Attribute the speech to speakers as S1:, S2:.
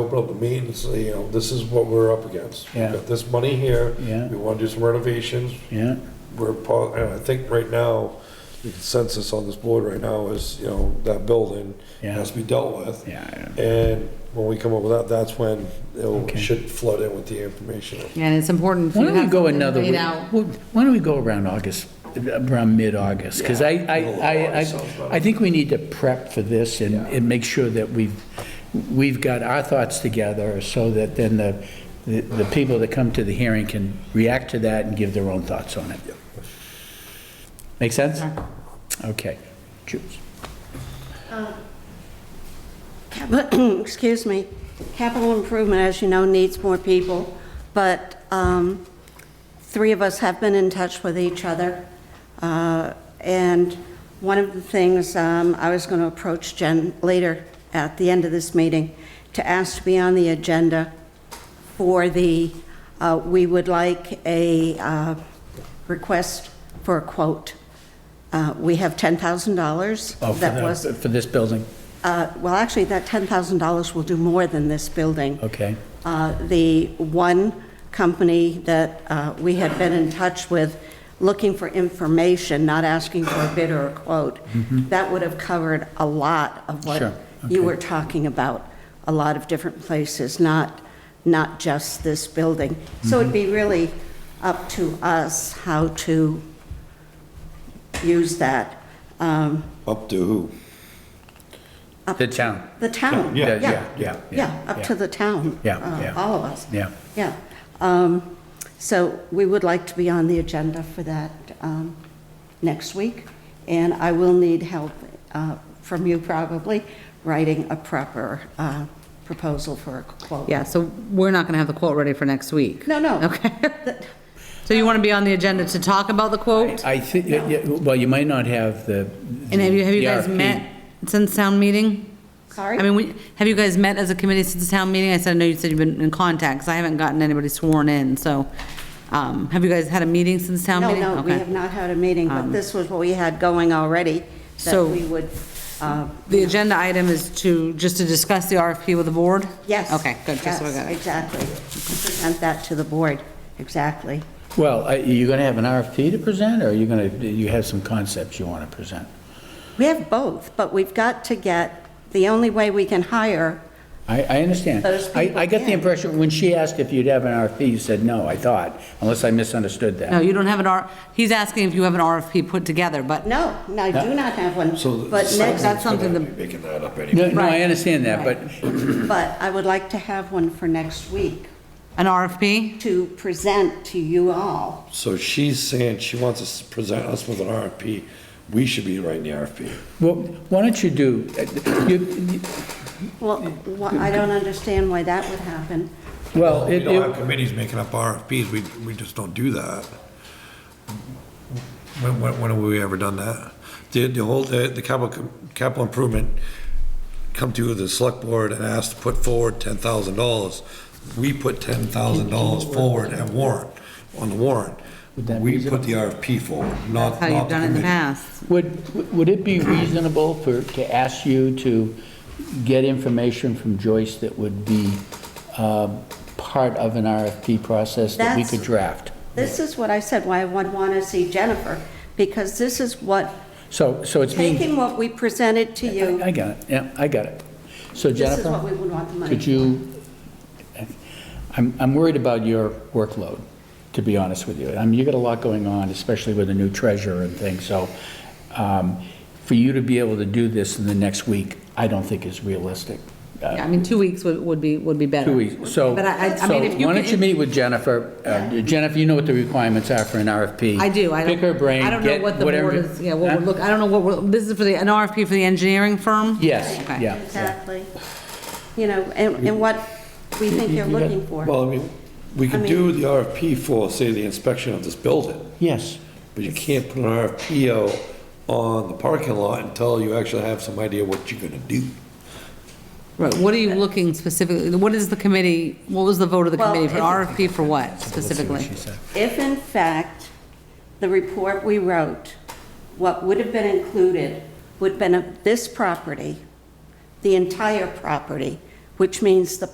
S1: Open up a meeting and say, you know, this is what we're up against. We've
S2: Yeah.
S1: got this money here.
S2: Yeah.
S1: We want to do some renovations.
S2: yeah,
S1: We're, po- and I think right now, the consensus on this board right now is, you know, that building
S2: Yeah.
S1: has to be dealt with.
S2: yeah.
S1: And when we come up with that, that's when it
S2: Okay.
S1: should flood in with the information.
S3: And it's important.
S2: Why don't we go another,
S3: way?
S2: week?
S3: out.
S2: Well, why don't we go around August, around mid-August? Because I, I,
S1: middle of
S2: I,
S1: August sounds
S2: I-
S1: better.
S2: I think we need to prep for this and, and make sure that we've, we've got our thoughts together so that then the, the- the people that come to the hearing can react to that and give their own thoughts on it. Make sense? Okay. Choose.
S4: Capi- excuse me, capital improvement, as you know, needs more people, but um, three of us have been in touch with each other. Uh, And one of the things, um, I was going to approach Jen later at the end of this meeting to ask to be on the agenda for the, uh, we would like a uh, request for a quote. Uh, We have $10,000.
S2: Oh, for
S4: that
S2: the-
S4: was-
S2: For this building,
S4: uh, Well, actually, that $10,000 will do more than this building.
S2: okay.
S4: Uh, The one company that uh, we had been in touch with, looking for information, not asking for a bid or a quote, that would have covered a lot of
S2: Mm-hmm. Sure,
S4: what you
S2: okay.
S4: were talking about, a lot of different places, not, not just this building. So
S2: Mm-hmm.
S4: it'd be really up to us how to use that. Um,
S1: Up to who?
S2: The town.
S4: The town.
S2: Yeah, yeah, yeah,
S4: Yeah,
S2: yeah.
S4: up to the town.
S2: Yeah,
S4: uh,
S2: yeah.
S4: All of us.
S2: Yeah.
S4: Yeah. Um, So we would like to be on the agenda for that um, next week, and I will need help uh, from you probably, writing a proper uh, proposal for a quote.
S3: Yeah, so we're not going to have the quote ready for next week.
S4: No, no.
S3: Okay. So you want to be on the agenda to talk about the quote?
S2: I think, yeah, yeah, well, you might not have the.
S3: And have you, have you
S2: the E
S3: guys
S2: RFP.
S3: met since town meeting?
S4: Sorry?
S3: I mean, we- have you guys met as a committee since town meeting? I said, I know you said you've been in contact, 'cause I haven't gotten anybody sworn in, so, um, have you guys had a meeting since town
S4: No,
S3: meeting?
S4: no, we
S3: Okay. Um,
S4: have not had a meeting, but this was what we had going already, that
S3: So-
S4: we would, uh,
S3: The agenda item is to, just to discuss the RFP with the board?
S4: yes.
S3: Okay, good, just so I
S4: yes,
S3: got it.
S4: Exactly. Present that to the board, exactly.
S2: Well, are you going to have an RFP to present, or are you going to, you have some concepts you want to present?
S4: We have both, but we've got to get, the only way we can hire,
S2: I, I understand.
S4: Those
S2: I, I got
S4: people,
S2: the
S4: yeah.
S2: impression, when she asked if you'd have an RFP, you said no, I thought, unless I misunderstood
S3: No,
S2: that.
S3: you don't have an R, he's asking if you have an RFP put together, but
S4: no, no, I do not have one.
S1: So the-
S4: But next,
S3: that's something the
S1: Making that up anyway.
S2: No, no, I
S3: Right.
S2: understand that, but,
S4: but I would like to have one for next week
S3: An RFP?
S4: to present to you all.
S1: So she's saying she wants us to present us with an RFP. We should be writing the RFP.
S2: well, why don't you do, uh, you,
S4: Well, wh- I don't understand why that would happen.
S2: well,
S1: We
S2: it,
S1: don't have
S2: it-
S1: committees making up RFPs. We, we just don't do that. When, when, when have we ever done that? The, the whole, the, the capital, capital improvement come to the select board and ask to put forward ten thousand dollars. We put ten thousand dollars forward at warrant, on the warrant.
S2: that
S1: We
S2: be-
S1: put the RFP forward, not,
S3: How
S1: not
S3: you've
S1: the
S3: done it in the
S1: committee.
S3: past.
S2: would, would it be reasonable for, to ask you to get information from Joyce that would be um, part of an RFP process that we
S4: That's-
S2: could draft?
S4: This is what I said, why I would want to see Jennifer, because this is what,
S2: So, so it's being.
S4: taking what we presented to you,
S2: I got it, yeah, I got it. So
S4: this is what we
S2: Jennifer,
S4: would want the money.
S2: could you, I'm, I'm worried about your workload, to be honest with you. I mean, you got a lot going on, especially with a new treasurer and things, so um, for you to be able to do this in the next week, I don't think is realistic. Uh,
S3: Yeah, I mean, two weeks would, would be, would be better.
S2: Two weeks, so,
S3: But I, I- I
S2: so
S3: mean, if you.
S2: why don't
S3: can-
S2: you meet with Jennifer? Uh, Jennifer, you know what the requirements are for an RFP.
S3: I do, I don't.
S2: Pick her brain,
S3: I don't know
S2: get
S3: what the
S2: whatever-
S3: board is, yeah, what
S2: Huh?
S3: we're look, I don't know what we're, this is for the, an RFP for the engineering firm?
S2: Yes,
S3: Okay.
S2: yeah.
S4: Exactly. You know, and, and what we think you're
S2: you got-
S4: looking for.
S1: Well, I mean, we could do the RFP for, say, the inspection of this building.
S2: Yes,
S1: But you can't put an RFP out on the parking lot until you actually have some idea what you're gonna do.
S3: Right, what are you looking specifically, what is the committee, what was the vote of the
S4: Well,
S3: committee for
S4: if-
S3: RFP for what
S2: what
S3: specifically?
S2: she said.
S4: If in fact, the report we wrote, what would have been included would have been of this property, the entire property, which means the